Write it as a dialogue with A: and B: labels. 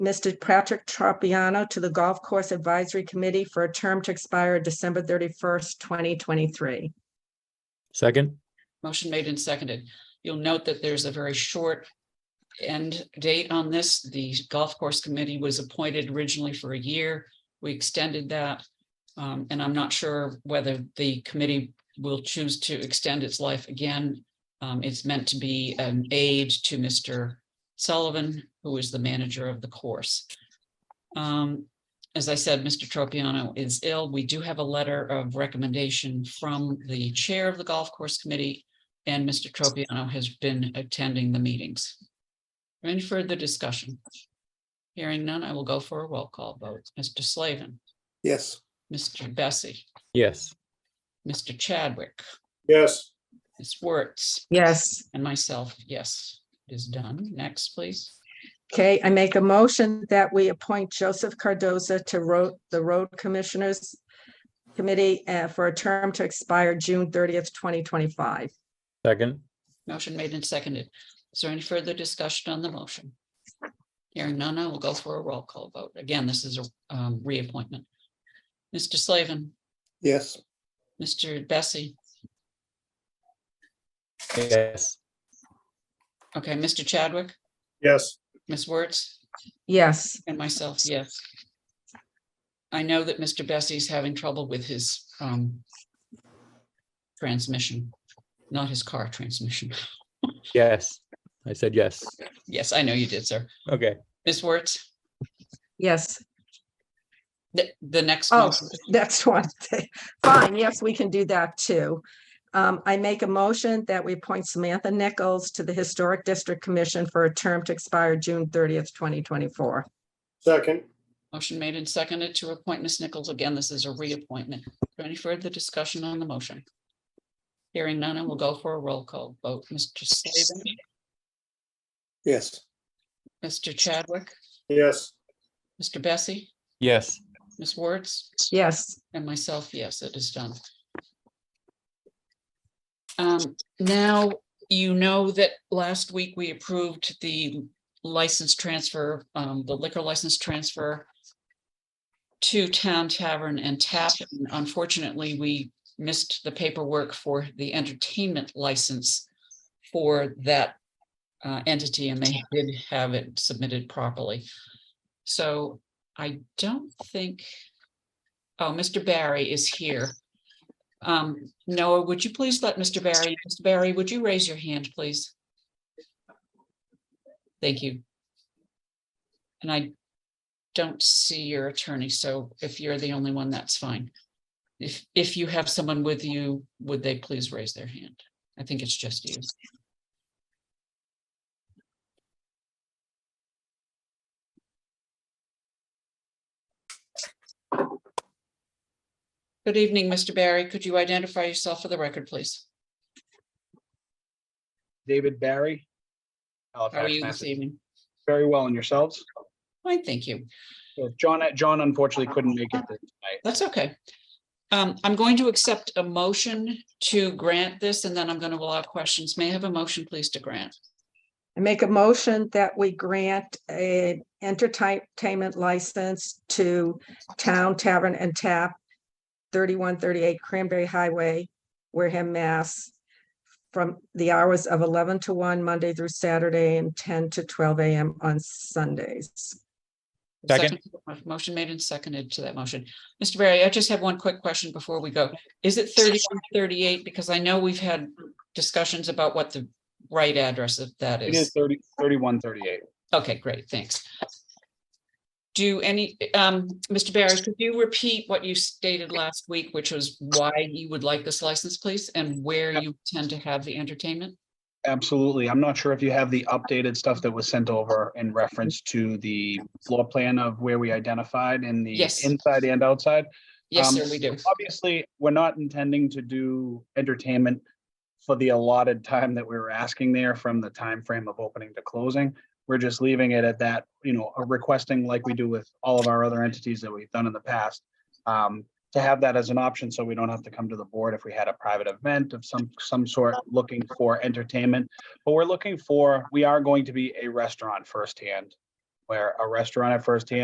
A: Mr. Patrick Tropiano to the Golf Course Advisory Committee for a term to expire December thirty-first, twenty twenty-three.
B: Second,
C: Motion made and seconded. You'll note that there's a very short end date on this. The golf course committee was appointed originally for a year. We extended that. Um, and I'm not sure whether the committee will choose to extend its life again. Um, it's meant to be an aid to Mr. Sullivan, who is the manager of the course. Um, as I said, Mr. Tropiano is ill. We do have a letter of recommendation from the chair of the golf course committee. And Mr. Tropiano has been attending the meetings. Any further discussion? Hearing none, I will go for a roll call vote. Mr. Slavin,
D: Yes.
C: Mr. Bessie,
B: yes,
C: Mr. Chadwick,
D: Yes.
C: Ms. Wertz,
A: Yes.
C: and myself, yes, it is done. Next, please.
A: Okay, I make a motion that we appoint Joseph Cardoza to road, the Road Commissioners Committee uh, for a term to expire June thirtieth, twenty twenty-five.
B: second,
C: Motion made and seconded. Is there any further discussion on the motion? Hearing none, I will go for a roll call vote. Again, this is a um, reappointment. Mr. Slavin,
D: Yes.
C: Mr. Bessie,
B: yes,
C: okay, Mr. Chadwick,
D: Yes.
C: Ms. Wertz,
A: Yes,
C: and myself, yes. I know that Mr. Bessie's having trouble with his um transmission, not his car transmission.
B: yes. I said yes.
C: Yes, I know you did, sir.
B: Okay,
C: Ms. Wertz,
A: yes,
C: the, the next.
A: Oh,
C: motion-
A: that's one thing. Fine, yes, we can do that too. Um, I make a motion that we appoint Samantha Nichols to the Historic District Commission for a term to expire June thirtieth, twenty twenty-four.
D: Second.
C: Motion made and seconded to appoint Ms. Nichols. Again, this is a reappointment. Is there Any further discussion on the motion? Hearing none, I will go for a roll call vote. Mr. Slavin,
D: Yes.
C: Mr. Chadwick,
D: Yes.
C: Mr. Bessie,
B: yes,
C: Ms. Wertz,
A: Yes,
C: and myself, yes, it is done. Um, now, you know that last week we approved the license transfer, um, the liquor license transfer to Town Tavern and Tap. And Unfortunately, we missed the paperwork for the entertainment license for that uh, entity, and they did have it submitted properly. So I don't think Oh, Mr. Barry is here. Um, Noah, would you please let Mr. Barry, Mr. Barry, would you raise your hand, please? Thank you. And I don't see your attorney, so if you're the only one, that's fine. If, if you have someone with you, would they please raise their hand? I think it's just you. Good evening, Mr. Barry. Could you identify yourself for the record, please?
E: David Barry.
C: How are
E: Halifax,
C: you this
E: Massachusetts.
C: evening?
E: Very well, and yourselves?
C: Fine, thank you.
E: So John, John unfortunately couldn't make it. tonight.
C: That's okay. Um, I'm going to accept a motion to grant this, and then I'm going to allow questions. May I have a motion, please, to grant?
A: I make a motion that we grant a entertainment license to Town Tavern and Tap, thirty-one thirty-eight Cranberry Highway, Wareham, Mass, from the hours of eleven to one, Monday through Saturday, and ten to twelve AM on Sundays.
B: Second.
C: Motion made and seconded to that motion. Mr. Barry, I just have one quick question before we go. Is it thirty-one thirty-eight? Because I know we've had discussions about what the right address of that
E: It is
C: is.
E: thirty, thirty-one, thirty-eight.
C: Okay, great, thanks. Do any, um, Mr. Barry, could you repeat what you stated last week, which was why you would like this license, please, and where you tend to have the entertainment?
E: Absolutely. I'm not sure if you have the updated stuff that was sent over in reference to the floor plan of where we identified in the
C: Yes.
E: inside and outside.
C: Yes,
E: Um,
C: sir, we do.
E: Obviously, we're not intending to do entertainment for the allotted time that we were asking there from the time frame of opening to closing. We're just leaving it at that, you know, a requesting like we do with all of our other entities that we've done in the past. um, To have that as an option, so we don't have to come to the board if we had a private event of some, some sort, looking for entertainment. But we're looking for, we are going to be a restaurant firsthand where a restaurant at first hand